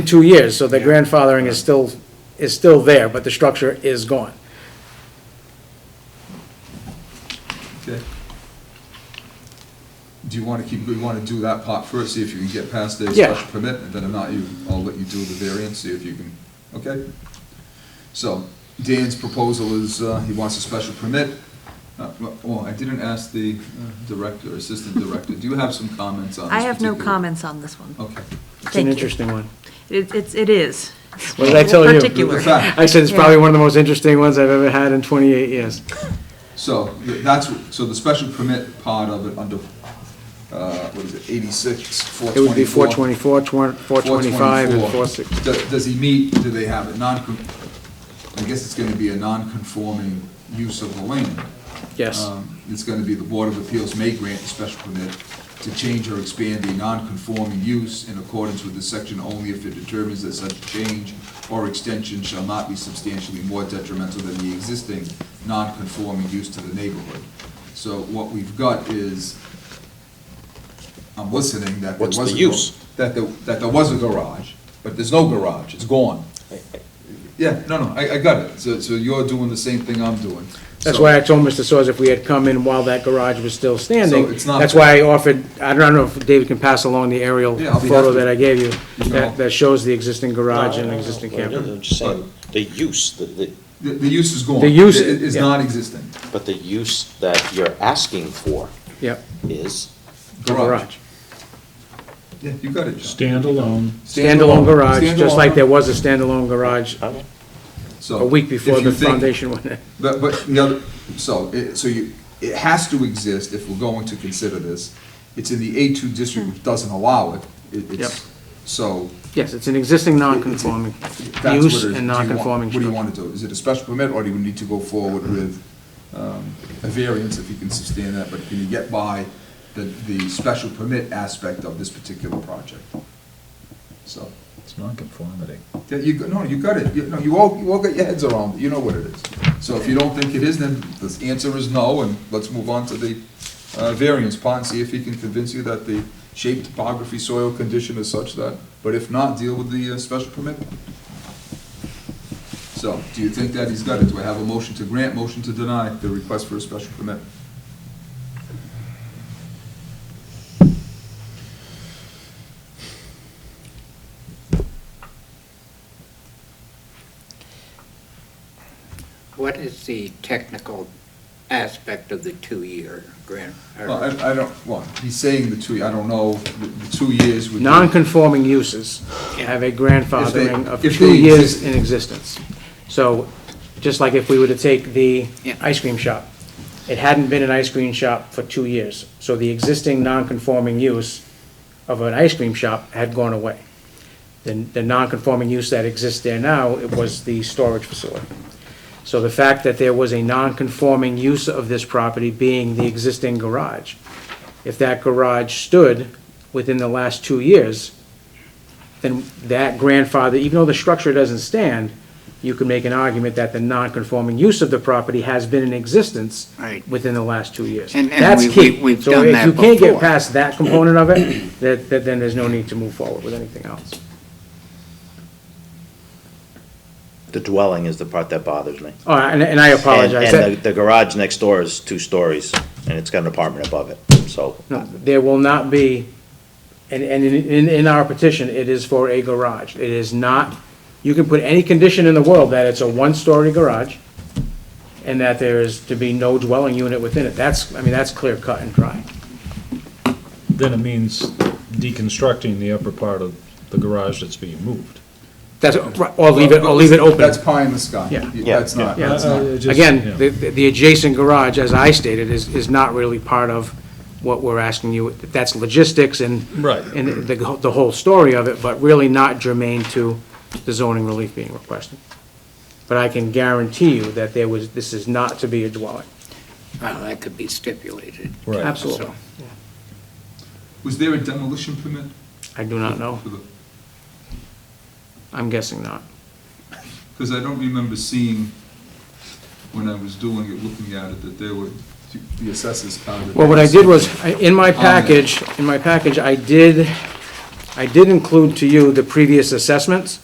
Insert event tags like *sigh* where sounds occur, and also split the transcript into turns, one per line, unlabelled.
two years, so the grandfathering is still, is still there, but the structure is gone.
Okay. Do you want to keep, we want to do that part first, see if you can get past the
Yeah.
special permit, and then if not, you, I'll let you do the variance, see if you can, okay? So, Dan's proposal is, uh, he wants a special permit. Uh, Well, I didn't ask the uh, director, assistant director, do you have some comments on this
I have no
particular-
comments on this one.
Okay.
It's an
Thank you.
interesting one.
It- It's, it is.
What did I tell you?
Particular.
*laughs*
The fact-
I said it's
Yeah.
probably one of the most interesting ones I've ever had in 28 years.
So th- that's, so the special permit part of it under, uh, what is it, eighty-six, four
It would be
twenty-four?
424, 425, and 460.
424. Do- Does he meet, do they have a non, I guess it's gonna be a non-conforming use of the land.
Yes,
Um, It's gonna be the Board of Appeals may grant a special permit to change or expand a non-conforming use in accordance with this section only if it determines that such change or extension shall not be substantially more detrimental than the existing non-conforming use to the neighborhood. So what we've got is, I'm listening, that there was
What's
a.
the
gar-
use?
That there, that there was a garage, but there's no garage, it's gone. Yeah, no, no, I, I got it, so, so you're doing the same thing I'm doing.
that's
So-
why I told Mr. Soers if we had come in while that garage was still standing.
So it's not-
That's why I offered, I don't know if David can pass along the aerial
Yeah, I'll be
photo
happy.
that I gave you,
No.
that, that shows the existing garage
No,
and
no, no,
existing
no, no,
camper.
I'm just saying, the use, the, the,
The, the use is gone.
The use-
It is
yeah.
non-existent.
but the use that you're asking for
Yep,
is,
the garage.
Yeah, you got it, John.
Standalone,
Standalone garage, just
Standalone.
like there was a standalone garage
okay,
So,
a week
if
before
you
the
think-
foundation went in.
But, but the other, so, it, so you, it has to exist if we're going to consider this. It's in the A two district, which doesn't allow it. It-
Yep.
It's, so.
Yes, it's an existing non-conforming
that's what it is.
use
Do you
and
want-
non-conforming
What do you
structure.
want to do? Is it a special permit, or do we need to go forward with, um, a variance if you can sustain that? But can you get by the, the special permit aspect of this particular project? So.
It's nonconformity.
Yeah, you, go- no, you got it, you, no, you all, you all got your heads around, it. you know what it is. So if you don't think it is, then the answer is no, and let's move on to the, uh, variance part, and see if he can convince you that the shape, topography, soil condition is such that, but if not, deal with the, uh, special permit. So, do you think that he's got it? Do I have a motion to grant, motion to deny the request for a special permit?
What is the technical aspect of the two-year grant? or-
Well, I, I don't, well, he's saying the two, I don't know, the, the two years would. be-
Non-conforming uses have a grandfathering of
If they- if
two
they
years
exist.
in existence. So, just like if we were to take the
Yeah.
ice cream shop, it hadn't been an ice cream shop for two years. So the existing non-conforming use of an ice cream shop had gone away. The, the non-conforming use that exists there now, it was the storage facility. So the fact that there was a non-conforming use of this property being the existing garage, if that garage stood within the last two years, then that grandfather, even though the structure doesn't stand, you can make an argument that the non-conforming use of the property has been in existence
Right.
within the last two years.
And- and
That's
we-
key.
we- we've done that
So if you can't get
before.
past that component of it, that, that then there's no need to move forward with anything else.
The dwelling is the part that bothers me.
All right, and, and I apologize.
And- And
That-
the the garage next door is two stories, and it's got an apartment above it, so.
No, there will not be, and, and in- in, in our petition, it is for a garage. It is not, you can put any condition in the world that it's a one-story garage and that there is to be no dwelling unit within it. That's, I mean, that's clear cut and dry.
then it means deconstructing the upper part of the garage that's being moved.
That's, or leave it, or leave it open.
That's pie in the sky.
Yeah.
Yeah,
That's not,
Yeah,
that's
I- I
not.
just- yeah.
Again, the, the adjacent garage, as I stated, is, is not really part of what we're asking you. That's logistics and.
Right.
And the, the whole story of it, but really not germane to the zoning relief being requested. But I can guarantee you that there was, this is not to be a dwelling.
Well, oh, that could be stipulated.
Right.
Absolutely.
Was there a demolition permit
I do not know.
for the?
I'm guessing not.
Because I don't remember seeing, when I was doing it, looking at it, that there were, the assessors counted.
Well, what I did was, I- in my package, in my package, I did I did include to you the previous assessments,